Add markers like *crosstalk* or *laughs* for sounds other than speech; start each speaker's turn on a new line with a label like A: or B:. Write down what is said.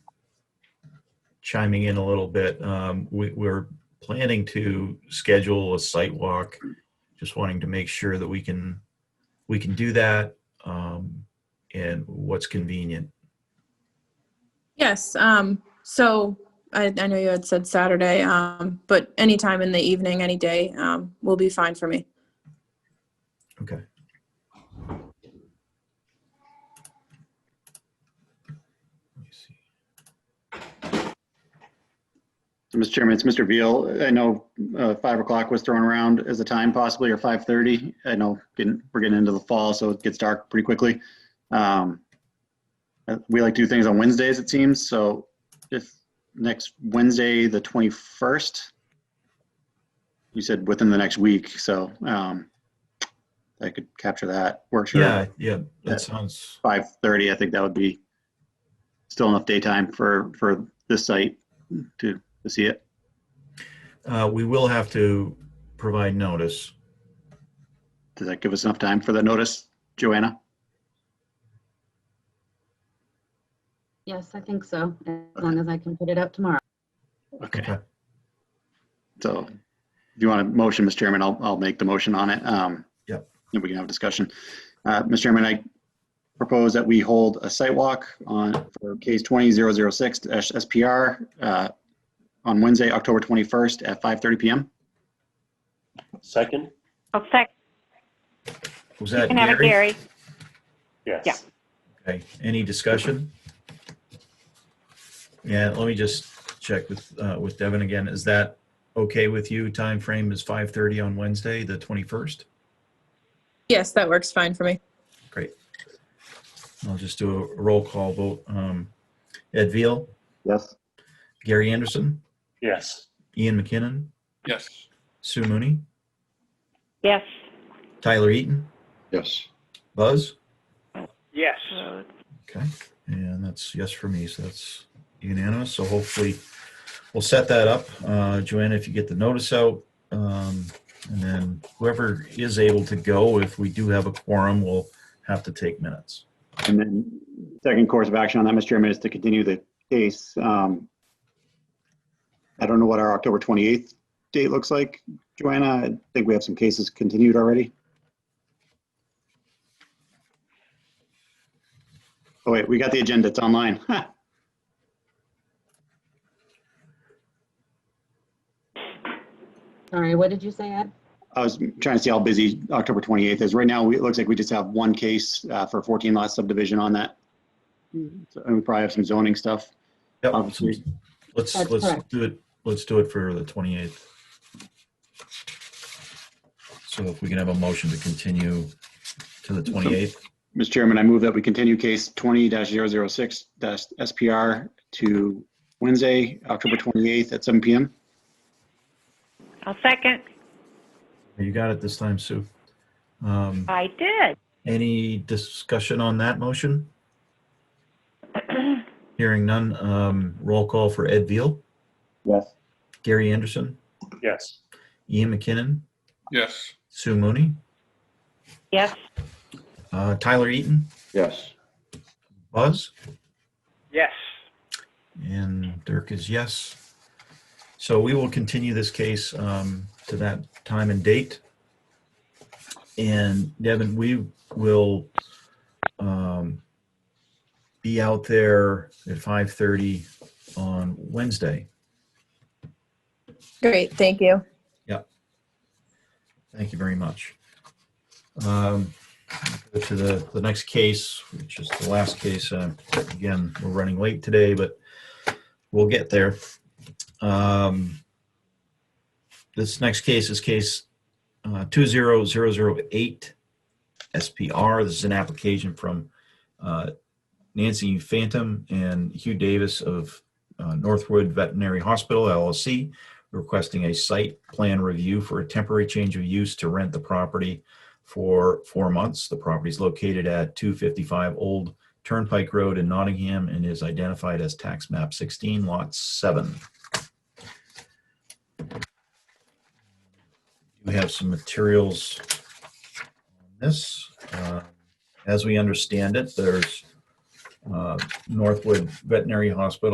A: chiming in a little bit. Um, we, we're planning to schedule a site walk. Just wanting to make sure that we can, we can do that, um, and what's convenient.
B: Yes, um, so I, I know you had said Saturday, um, but anytime in the evening, any day, um, will be fine for me.
A: Okay. Let me see.
C: Mr. Chairman, it's Mr. Veal. I know uh, 5 o'clock was thrown around as a time possibly, or 5:30. I know getting- we're getting into the fall, so it gets dark pretty quickly. Um, uh, We like to do things on Wednesdays, it seems, so if next Wednesday, the 21st, you said within the next week, so um, I could capture that. Works. for
A: Yeah, yeah,
C: Yeah.
A: that sounds,
C: 5:30, I think that would be still enough daytime for, for this site to, to see it.
A: uh, we will have to provide notice.
C: Does that give us enough time for the notice, Joanna?
D: Yes, I think so, as long as I can put it out tomorrow.
A: Okay.
C: So if you want a motion, Mr. Chairman, I'll, I'll make the motion on it. Um,
A: Yep.
C: And we can have a discussion. Uh, Mr. Chairman, I propose that we hold a site walk on, for case 20006 SPR uh, on Wednesday, October 21st at 5:30 PM.
E: Second?
F: I'll second.
A: Was
F: You
A: that
F: can have it,
A: Gary?
F: Gary. Yeah.
E: Yes.
A: Okay, any discussion? Yeah, let me just check with, uh, with Devin again. Is that okay with you? Time frame is 5:30 on Wednesday, the 21st?
B: Yes, that works fine for me.
A: Great. I'll just do a roll call vote. Um, Ed Veal,
C: Yes.
A: Gary Anderson,
E: Yes.
A: Ian McKinnon,
G: Yes.
A: Sue Mooney,
F: Yes.
A: Tyler Eaton,
G: Yes.
A: Buzz.
E: Yes.
A: Okay, and that's yes for me, so that's unanimous. So hopefully, we'll set that up. Uh, Joanna, if you get the notice out, um, and then whoever is able to go, if we do have a quorum, we'll have to take minutes.
C: And then second course of action on that, Mr. Chairman, is to continue the case. Um, I don't know what our October 28th date looks like. Joanna, I think we have some cases continued already. Oh wait, we got the agenda. It's online. *laughs*
D: Sorry, what did you say, Ed?
C: I was trying to see how busy October 28th is. Right now, we- it looks like we just have one case uh, for 14 lot subdivision on that. So, And we probably have some zoning stuff.
A: Yep.
C: Obviously.
A: Let's,
D: Um, That's
A: let's
D: correct.
A: do it, let's do it for the 28th. So if we can have a motion to continue to the 28th,
C: Mr. Chairman, I move that we continue case 20-006-SPR to Wednesday, October 28th at 7 PM.
F: I'll second.
A: you got it this time, Sue. Um,
F: I did.
A: Any discussion on that motion? Hearing none, um, roll call for Ed Veal,
C: Yes.
A: Gary Anderson,
E: Yes.
A: Ian McKinnon,
G: Yes.
A: Sue Mooney,
F: Yes.
A: uh, Tyler Eaton,
G: Yes.
A: Buzz,
E: Yes.
A: and Dirk is yes. So we will continue this case, um, to that time and date. And Devin, we will, um, be out there at 5:30 on Wednesday.
B: Great, thank you.
A: Thank you very much. Um, go To the, the next case, which is the last case, uh, again, we're running late today, but we'll get there. Um, This next case is case uh, 20008 SPR. This is an application from uh, Nancy Phantom and Hugh Davis of uh, Northwood Veterinary Hospital LLC requesting a site plan review for a temporary change of use to rent the property for four months. The property is located at 255 Old Turnpike Road in Nottingham and is identified as tax map 16, lot 7. We have some materials on this. Uh, As we understand it, there's uh, Northwood Veterinary Hospital